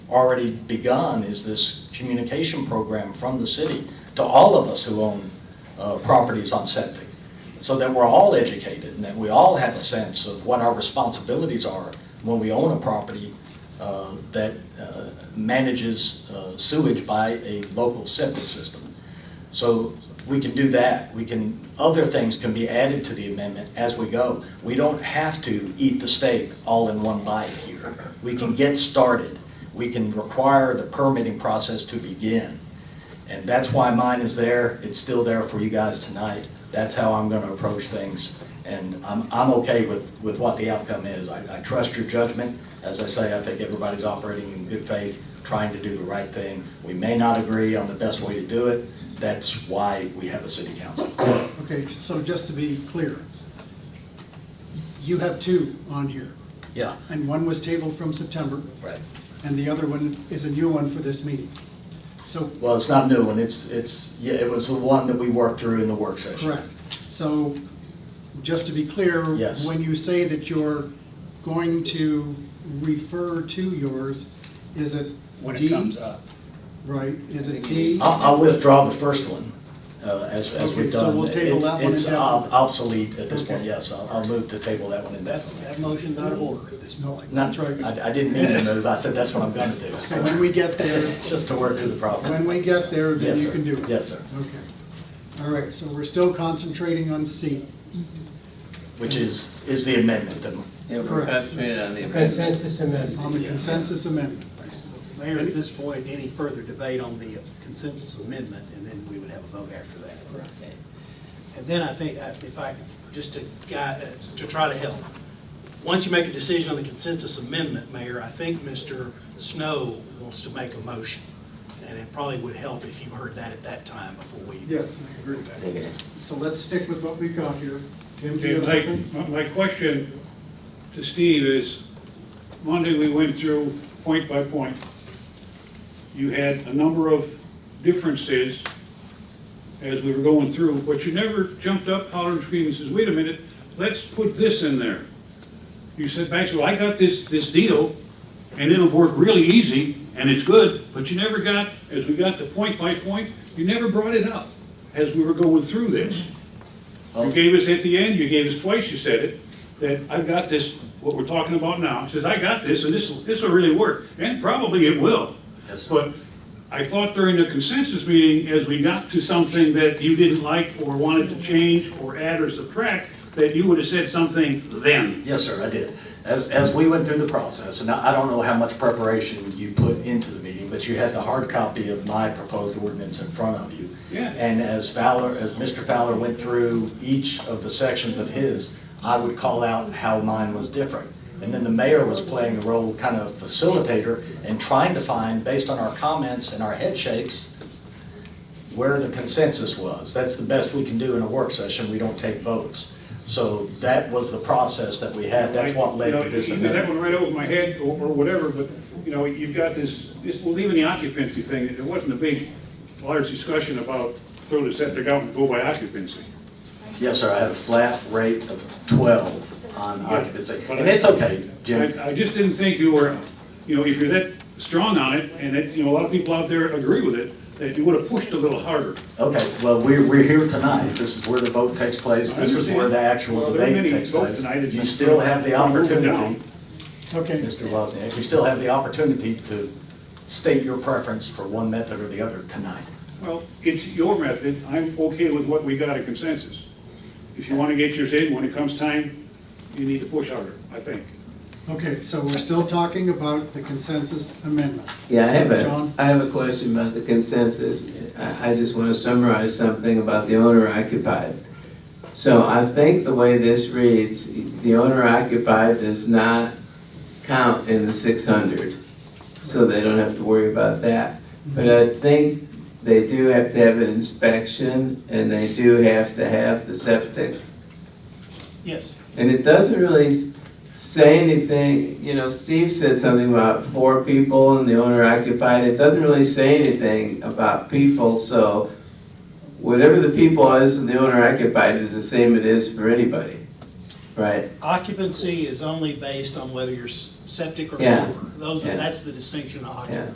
already begun is this communication program from the city to all of us who own uh, properties on septic, so that we're all educated and that we all have a sense of what our responsibilities are when we own a property uh, that uh, manages uh, sewage by a local septic system. So we can do that. We can, other things can be added to the amendment as we go. We don't have to eat the steak all in one bite here. We can get started. We can require the permitting process to begin. And that's why mine is there. It's still there for you guys tonight. That's how I'm going to approach things. And I'm, I'm okay with, with what the outcome is. I, I trust your judgment. As I say, I think everybody's operating in good faith, trying to do the right thing. We may not agree on the best way to do it. That's why we have a city council. Okay, so just to be clear, you have two on here, Yeah, and one was tabled from September, right. and the other one is a new one for this meeting. So, Well, it's not a new, and it's, it's, yeah, it was the one that we worked through in the work session. correct. So, just to be clear. Yes. When you say that you're going to refer to yours, is it D? when it comes up. Right, is it D? I'll, I'll withdraw the first one, uh, as, as we've Okay, so done. we'll table It's- that one It's indefinitely. ob- obsolete at this point, Okay. yes, I'll, I'll move to table that one That's, indefinitely. that motion's out of order at this point. Not, I, I didn't mean to move, I said that's what I'm gonna do. So when we get there, Just, just to work through the problem. when we get there, Yes, then you sir. can do it. Yes, sir, Okay. All right, so we're still concentrating on C. which is, is the amendment, and Yeah, we're Correct. concentrating on the amendment. Consensus amendment. On the consensus amendment. Mayor, at this point, any further debate on the consensus amendment, and then we would have a vote after that. And then I think, I- if I, just to, gui- uh, to try to help, once you make a decision on the consensus amendment, Mayor, I think Mr. Snow wants to make a motion, and it probably would help if you heard that at that time before we. Yes, I agree. Okay. So let's stick with what we've got here. Tim, do you have Okay, something? my, my question to Steve is, Monday we went through point by point. You had a number of differences as we were going through, but you never jumped up, hollered and screamed and says, wait a minute, let's put this in there. You said, Max, well, I got this, this deal, and it'll work really easy, and it's good, but you never got, as we got to point by point, you never brought it up as we were going through this. You gave us at the end, you gave us twice, you said it, that I've got this, what we're talking about now, says, I got this, and this, this will really work, and probably it will. But I thought during the consensus meeting, as we got to something that you didn't like or wanted to change or add or subtract, that you would have said something then. Yes, sir, I did. As, as we went through the process, and I I don't know how much preparation you put into the meeting, but you had the hard copy of my proposed ordinance in front of you. Yeah. And as Fowler, as Mr. Fowler went through each of the sections of his, I would call out how mine was different. And then the mayor was playing a role, kind of facilitator, and trying to find, based on our comments and our head shakes, where the consensus was. That's the best we can do in a work session, we don't take votes. So that was the process that we had, that's what led You to know, this you got That amendment. one right over my head or, or whatever, but, you know, you've got this, this, well, even the occupancy thing, there wasn't a big, large discussion about throw the septic out and go by occupancy. Yes, sir, I had a flat rate of 12 on occupancy, and it's okay, Jim. I, I just didn't think you were, you know, if you're that strong on it, and that, you know, a lot of people out there agree with it, that you would have pushed a little harder. Okay, well, we're, we're here tonight, this is where the vote takes place, I this is where the understand. actual Well, there are debate many takes votes place. tonight that You you- still have the We're moving down. opportunity, Okay, Mr. Wozniak, you still have the opportunity to state your preference for one method or the other tonight. Well, it's your method, I'm okay with what we got a consensus. If you wanna get yours in, when it comes time, you need to push harder, I think. okay, so we're still talking about the consensus amendment. Yeah, I have a, John? I have a question about the consensus. I, I just want to summarize something about the owner occupied. So I think the way this reads, the owner occupied does not count in the six hundred. So they don't have to worry about that. But I think they do have to have an inspection and they do have to have the septic Yes. And it doesn't really s- say anything, you know, Steve said something about four people and the owner occupied, it doesn't really say anything about people, so whatever the people is and the owner occupied is the same it is for anybody. right? Occupancy is only based on whether you're s- septic or Yeah. sewer. Those, Yeah. that's the distinction of occupancy. Yeah.